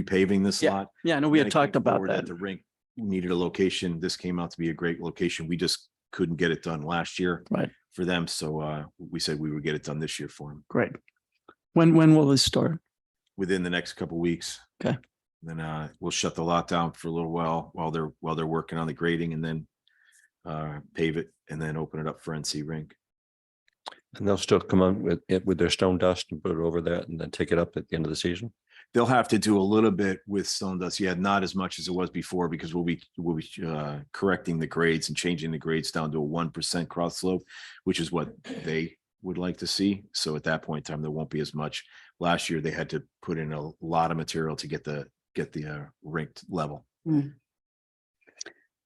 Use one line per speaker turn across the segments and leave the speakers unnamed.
repaving this lot.
Yeah, I know we
and
had
it came
talked about
forward
that.
The rink needed a location. This came out to be a great location. We just couldn't get it done last year.
Right.
For them, so uh, we said we would get it done this year for them,
Great. When, when will this start?
within the next couple weeks.
Okay.
Then uh, we'll shut the lot down for a little while, while they're, while they're working on the grading and then uh, pave it and then open it up for NC rink.
And they'll still come on with it with their stone dust and put it over that and then take it up at the end of the season.
They'll have to do a little bit with stone dust. Yeah, not as much as it was before because we'll be, we'll be uh, correcting the grades and changing the grades down to a one percent cross slope, which is what they would like to see. So at that point in time, there won't be as much. Last year, they had to put in a lot of material to get the, get the uh, ranked level.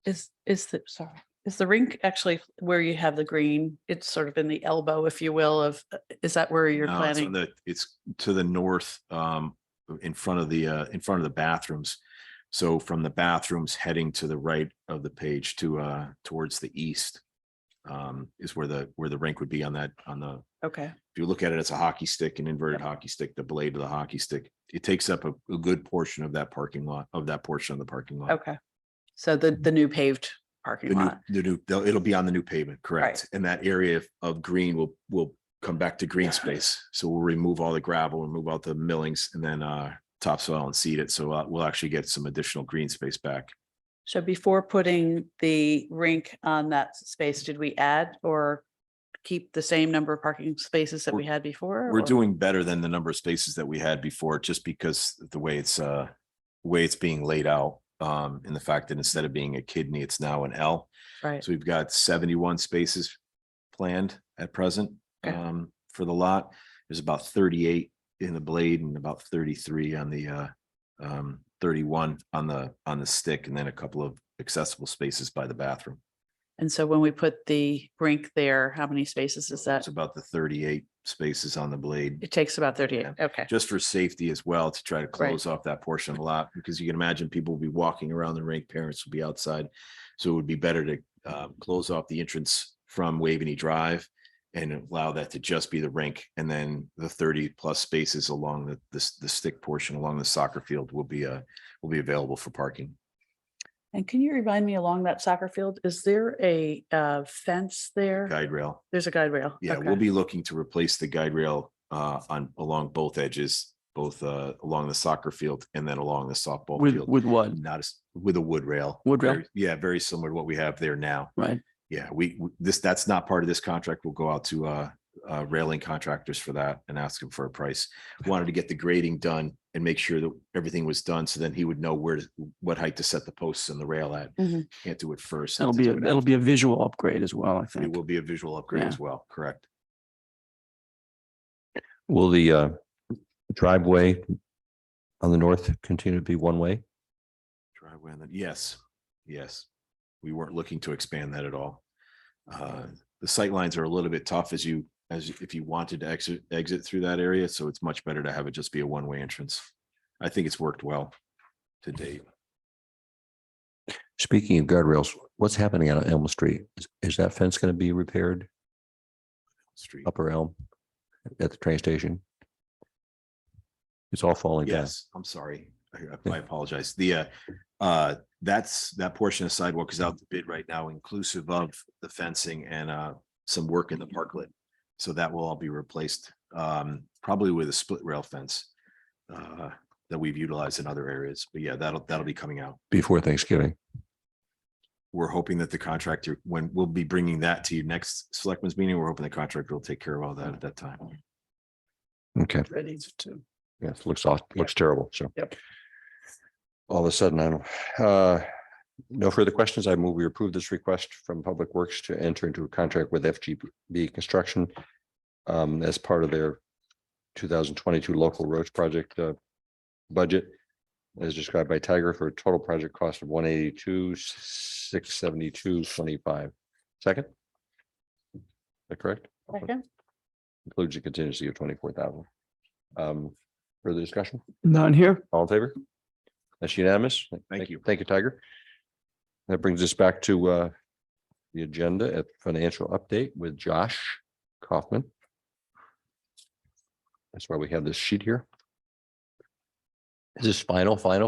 Is, is the, sorry, is the rink actually where you have the green? It's sort of in the elbow, if you will, of, uh, is that where you're
No, it's on
planning?
the- It's to the north, um, in front of the, uh, in front of the bathrooms. So from the bathrooms heading to the right of the page to, uh, towards the east. Um, is where the, where the rink would be on that, on the,
Okay,
if you look at it, it's a hockey stick, an inverted hockey stick, the blade of the hockey stick. It takes up a, a good portion of that parking lot, of that portion of the parking lot.
okay. So the, the new paved
The
parking
new,
lot.
the new, they'll- it'll be on the new pavement, correct? And that area of- of green will, will come back to green space. So we'll remove all the gravel, remove all the millings and then uh topsoil and seed it. So uh, we'll actually get some additional green space back.
So before putting the rink on that space, did we add or keep the same number of parking spaces that
We're-
we had before?
We're
or-
doing better than the number of spaces that we had before, just because the way it's uh, the way it's being laid out. Um, and the fact that instead of being a kidney, it's now an L.
Right,
So we've got seventy-one spaces planned at present
Okay.
um, for the lot. There's about thirty-eight in the blade and about thirty-three on the uh, um, thirty-one on the, on the stick and then a couple of accessible spaces by the bathroom.
and so when we put the rink there, how many spaces is that?
It's about the thirty-eight spaces on the blade.
It takes about thirty-eight, okay.
Just for safety as well to try to close off that portion of the lot because you can imagine people will be walking around the rink, parents will be outside. So it would be better to uh, close off the entrance from Waveney Drive and allow that to just be the rink. And then the thirty plus spaces along the, the, s- the stick portion along the soccer field will be, uh, will be available for parking.
And can you remind me along that soccer field, is there a uh, fence there?
Guide rail.
There's a guide rail.
Yeah,
Okay.
we'll be looking to replace the guide rail, uh, on, along both edges, both, uh, along the soccer field and then along the softball
With,
field.
with what?
Not as, with a wood rail.
Wood rail?
Very- Yeah, very similar to what we have there now.
Right.
Yeah, we, w- this, that's not part of this contract. We'll go out to uh, uh, railing contractors for that and ask him for a price. Wanted to get the grading done and make sure that everything was done, so then he would know where, to what height to set the posts and the rail at.
Mhm.
Can't do it first.
Mm-hmm. That'll
have to
be,
do
a
it
that'll
after.
be a visual upgrade as well, I
It
think.
will be a visual upgrade
Yeah.
as well, correct?
Will the uh driveway on the north continue to be one way?
Driveway, on the- yes, yes. We weren't looking to expand that at all. Uh, The sight lines are a little bit tough as you, as if you wanted to exit, exit through that area, so it's much better to have it just be a one-way entrance. I think it's worked well to date.
Speaking of guardrails, what's happening out on Elm Street? Is- Is that fence going to be repaired
Street.
upper Elm at the train station? It's all falling down.
Yes, I'm sorry. I- I apologize. The, uh, uh, that's, that portion of sidewalk is out the bid right now, inclusive of the fencing and, uh, some work in the parklet. So that will all be replaced, um, probably with a split rail fence, uh, that we've utilized in other areas. But yeah, that'll, that'll be coming out.
Before Thanksgiving.
We're hoping that the contractor, when we'll be bringing that to you next selectmen's meeting, we're hoping the contractor will take care of all that at that time.
Okay.
Ready to.
Yes, looks off, looks terrible, so.
Yep.
All of a sudden, I don't, uh, no further questions. I move we approve this request from Public Works to enter into a contract with FGB Construction um, as part of their two thousand twenty-two local roads project uh, budget as described by Tiger for a total project cost of one eighty-two, six seventy-two, twenty-five. Second? Is that correct?
Second?
Includes a contingency of twenty-four thousand. Um, further discussion?
None here?
All in favor? That's unanimous.
you.
Thank you, Tiger. That brings us back to uh the agenda at financial update with Josh Kaufman. That's why we have this sheet here. Is this final, final?